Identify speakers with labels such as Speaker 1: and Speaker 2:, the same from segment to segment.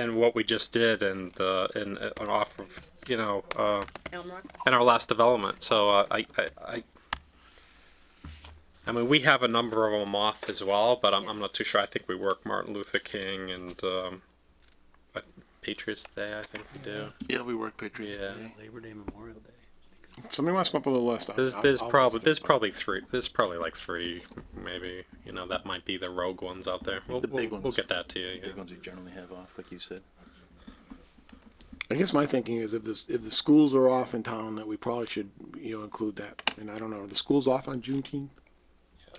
Speaker 1: and what we just did and uh, and uh, and off of you know uh,
Speaker 2: Elm Rock?
Speaker 1: and our last development. So uh, I, I I I mean we have a number of them off as well, but I'm, I'm not too sure. I think we work Martin Luther King and um, I- Patriots Day. I think we do.
Speaker 3: Yeah, we work Patriots.
Speaker 1: Yeah.
Speaker 4: Labor Day, Memorial Day.
Speaker 5: Somebody wants to come up with a list.
Speaker 1: There's
Speaker 5: I'll-
Speaker 1: there's
Speaker 5: I'll-
Speaker 1: probably there's probably three there's probably like three maybe you know that might be the rogue ones out there. We'll,
Speaker 3: The
Speaker 1: we'll,
Speaker 3: big
Speaker 1: we'll
Speaker 3: ones.
Speaker 1: get that to you.
Speaker 3: Big
Speaker 1: Yeah.
Speaker 3: ones we generally have off, like you said.
Speaker 5: I guess my thinking is if this, if the schools are off in town, that we probably should, you know, include that. And I don't know, are the schools off on Juneteenth?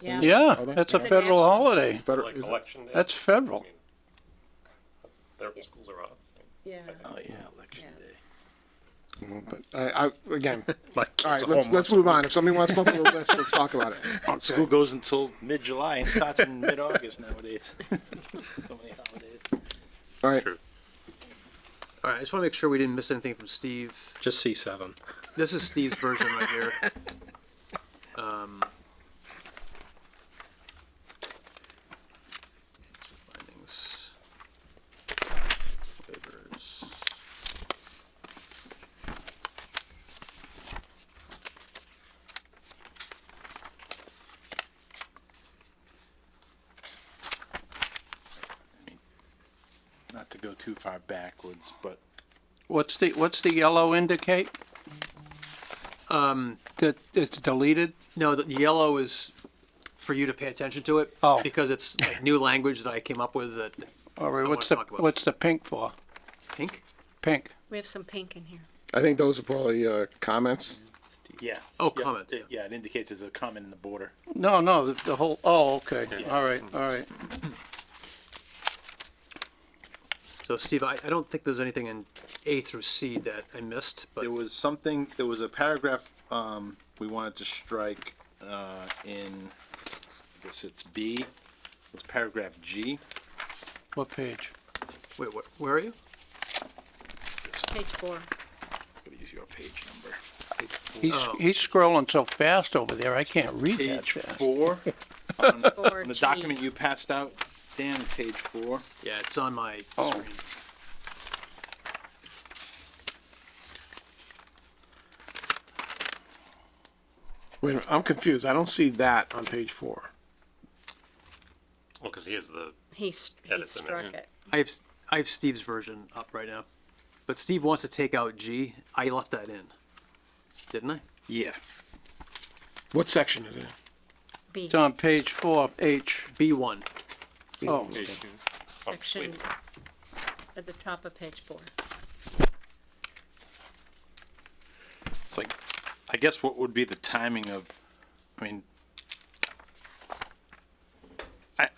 Speaker 2: Yeah.
Speaker 6: Yeah,
Speaker 5: Are they?
Speaker 6: that's a
Speaker 2: It's a
Speaker 6: federal
Speaker 2: national-
Speaker 6: holiday.
Speaker 5: Federal-
Speaker 7: Like
Speaker 5: is it-
Speaker 7: election day?
Speaker 6: That's federal.
Speaker 7: Their schools are off.
Speaker 2: Yeah.
Speaker 3: Oh yeah, election
Speaker 2: Yeah.
Speaker 3: day.
Speaker 5: Mm, But I, I, again,
Speaker 1: Like
Speaker 5: all
Speaker 1: it's
Speaker 5: right, let's,
Speaker 1: almost-
Speaker 5: let's move on. If somebody wants to come up with a list, let's talk about it.
Speaker 3: School goes until mid-July and starts in mid-August nowadays. so many holidays.
Speaker 5: All right,
Speaker 4: All right, I just want to make sure we didn't miss anything from Steve.
Speaker 1: just C seven.
Speaker 4: This is Steve's version right here. Um, findings, waivers.
Speaker 3: Not to go too far backwards, but
Speaker 6: What's the, what's the yellow indicate? Um, that it's deleted?
Speaker 4: No, the the yellow is for you to pay attention to it.
Speaker 6: Oh.
Speaker 4: Because it's like new language that I came up with that
Speaker 6: Or
Speaker 4: I
Speaker 6: what's the,
Speaker 4: wanna talk about-
Speaker 6: what's the pink for?
Speaker 4: pink?
Speaker 6: Pink.
Speaker 2: We have some pink in here.
Speaker 5: I think those are probably, uh, comments.
Speaker 3: yeah.
Speaker 4: Oh,
Speaker 3: yeah,
Speaker 4: comments,
Speaker 3: It, yeah, it indicates there's a comment in the border.
Speaker 6: No, no, the, the whole, oh, okay, all right, all right.
Speaker 4: So Steve, I, I don't think there's anything in A through C that I missed, but
Speaker 3: There was something. There was a paragraph um, we wanted to strike uh, in. I guess it's B. It was paragraph G.
Speaker 6: What page?
Speaker 4: wait, wh- where are you?
Speaker 2: Page four.
Speaker 3: Gotta use your page number.
Speaker 6: He's,
Speaker 4: Oh.
Speaker 6: he's scrolling so fast over there, I can't read that
Speaker 3: Page
Speaker 6: fast.
Speaker 3: four.
Speaker 2: Four
Speaker 3: On the
Speaker 2: G.
Speaker 3: document you passed out, Dan, page four.
Speaker 4: Yeah, it's on my
Speaker 6: Oh.
Speaker 4: screen.
Speaker 5: Wait, a minute, I'm confused. I don't see that on page four.
Speaker 7: Well, because he is the
Speaker 2: He, s-
Speaker 7: Yeah,
Speaker 2: he
Speaker 7: that's in
Speaker 2: struck
Speaker 7: there,
Speaker 2: it.
Speaker 4: I have, s- I have Steve's version up right now, but Steve wants to take out G. I left that in, didn't I?
Speaker 3: Yeah.
Speaker 5: What section is it? in?
Speaker 2: B,
Speaker 6: It's on page four, H,
Speaker 4: B one.
Speaker 6: oh,
Speaker 3: Oh,
Speaker 2: section at the top of page four.
Speaker 3: Like, I guess what would be the timing of, I mean, I,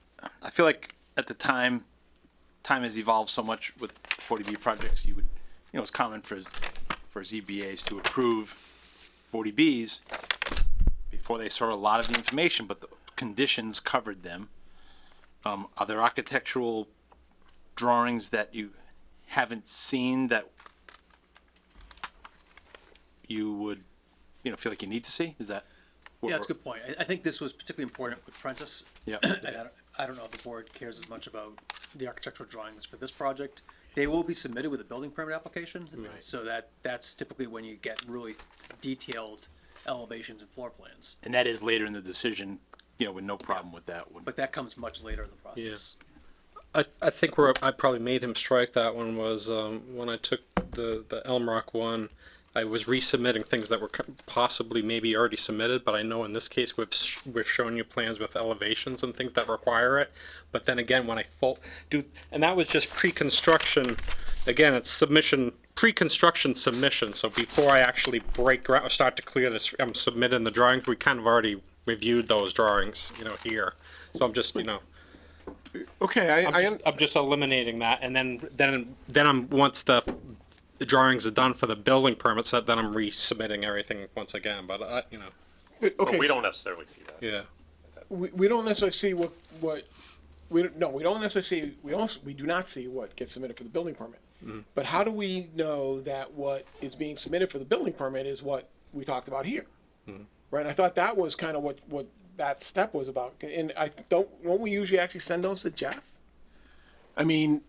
Speaker 3: I feel like at the time, time has evolved so much with forty B projects, you would, you know, it's common for, for ZBAs to approve forty Bs before they saw a lot of the information, but the conditions covered them. Um, are there architectural drawings that you haven't seen that you would, you know, feel like you need to see? Is that? what
Speaker 8: Yeah, that's a
Speaker 3: we're-
Speaker 8: good point. I, I think this was particularly important with Prentice.
Speaker 3: Yeah.
Speaker 8: And I don't, I don't know if the board cares as much about the architectural drawings for this project. They will be submitted with a building permit application, so that, that's typically when you get really detailed elevations and floor plans.
Speaker 3: And that is later in the decision, you know, with no problem with that one.
Speaker 8: But that comes much later in the process.
Speaker 1: I, I think where I probably made him strike that one was um, when I took the, the Elm Rock one. I was resubmitting things that were co- possibly maybe already submitted, but I know in this case we've sh- we've shown you plans with elevations and things that require it. But then again, when I full do, and that was just pre-construction. Again, it's submission pre-construction submission. So before I actually break ground or start to clear this, I'm submitting the drawings. We kind of already reviewed those drawings, you know, here. So I'm just you know.
Speaker 5: Okay, I,
Speaker 1: I'm
Speaker 5: I,
Speaker 1: just,
Speaker 5: un-
Speaker 1: I'm just eliminating that, and then then then I'm once the, the drawings are done for the building permits, that then I'm resubmitting everything once again. But I, you know,
Speaker 7: But
Speaker 5: okay,
Speaker 7: Oh, we don't necessarily see that.
Speaker 1: yeah.
Speaker 5: we, we don't necessarily see what, what, we, don't- no, we don't necessarily see, we don't, we do not see what gets submitted for the building permit. But how do we know that what is being submitted for the building permit is what we talked about here? Right, I thought that was kind of what, what that step was about, and I don't, won't we usually actually send those to Jeff? I mean,